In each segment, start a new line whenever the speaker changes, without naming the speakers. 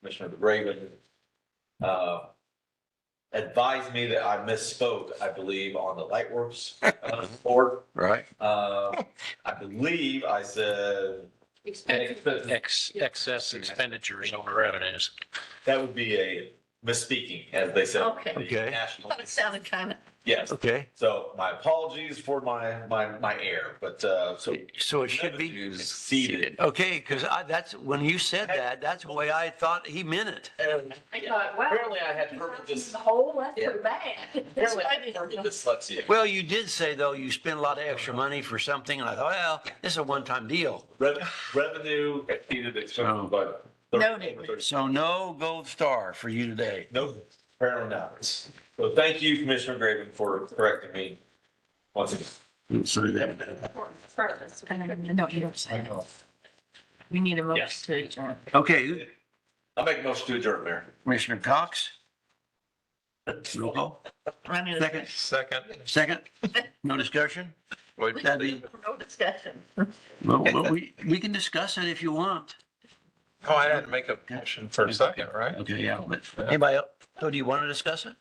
Commissioner DeBraven, uh, advised me that I misspoke, I believe, on the Lightworks uh, board.
right?
Uh, I believe I said
Expensive.
Ex, excess expenditures over revenues.
that would be a misspeaking, as they said.
Okay.
Okay.
National-
Thought it sounded kind of,
Yes.
Okay,
So my apologies for my, my, my error, but, uh, so.
so it should be,
revenues Seated.
okay, because I, that's, when you said that, that's the way I thought he meant it.
And
I thought, wow.
Apparently I had purple dys-
The whole, that's
Yeah.
pretty bad.
apparently
That's what
I
I
had purple
didn't know.
dyslexia.
Well, you did say though, you spent a lot of extra money for something and I thought, well, this is a one-time deal.
Rev- Revenue exceeded
Oh.
expenses by.
Noted.
So no gold star for you today.
No, apparently not. So thank you, Commissioner Graven, for correcting me once again.
Purpose. No, you don't say that. We need a motion
Yes.
to adjourn.
Okay,
I'll make a motion to adjourn, Mayor.
Commissioner Cox? Roll call.
I mean,
Second,
Second.
second, no discussion? That'd be-
No discussion.
well, well, we, we can discuss it if you want.
Oh, I had to make a motion for a second, right?
Okay, yeah, but anybody, else? so do you want to discuss it?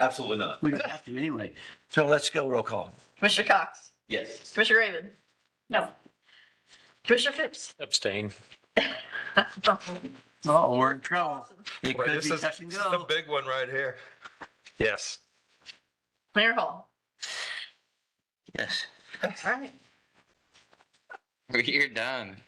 Absolutely not.
We have to anyway. So let's go roll call.
Commissioner Cox,
Yes.
Commissioner Raven. No. Commissioner Phipps.
Abstain.
Oh, we're in trouble. It
Boy,
could
This
be
is
touch
this
and
is the
go.
big one right here.
Yes.
Mayor Hall.
Yes.
All right.
You're done.